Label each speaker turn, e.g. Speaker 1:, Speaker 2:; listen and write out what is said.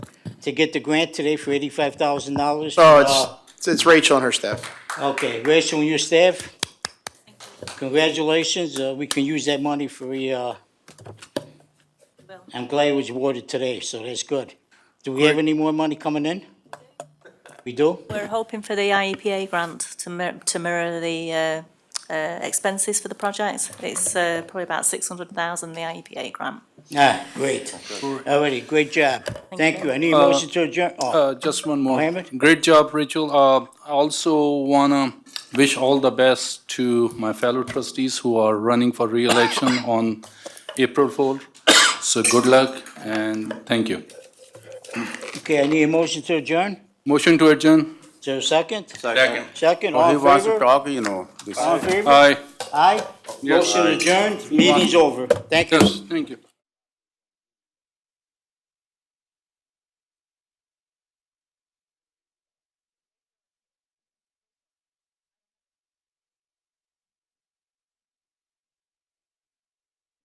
Speaker 1: to get the grant today for eighty-five thousand dollars? Uh,
Speaker 2: Oh, it's, it's Rachel and her staff.
Speaker 1: Okay, Rachel and your staff, congratulations, uh, we can use that money for, uh,
Speaker 3: Well-
Speaker 1: I'm glad it was awarded today, so that's good. Do we have any more money coming in? We do?
Speaker 3: We're hoping for the IEPA grant to mir- to mirror the uh, uh, expenses for the project. It's uh, probably about 600,000, the IEPA grant.
Speaker 1: Ah, great. Alrighty, great job. Thank
Speaker 3: you.
Speaker 1: you. I
Speaker 4: Uh,
Speaker 1: need a motion to adjourn. Oh,
Speaker 5: Uh, just one more.
Speaker 1: Mohammed?
Speaker 5: Great job, Rachel. Uh, I also wanna wish all the best to my fellow trustees who are running for reelection on April fourth. So good luck and thank you.
Speaker 1: okay, I need a motion to adjourn.
Speaker 5: Motion to adjourn?
Speaker 1: Is there a second?
Speaker 4: Second.
Speaker 1: Second, all
Speaker 4: Well, he
Speaker 1: in
Speaker 4: wants to
Speaker 1: favor?
Speaker 4: talk, you know. Uh, this-
Speaker 1: All in favor?
Speaker 5: Aye.
Speaker 1: Aye?
Speaker 5: Yes.
Speaker 1: Motion adjourned, meeting's over. Thank you.
Speaker 5: Yes, thank you.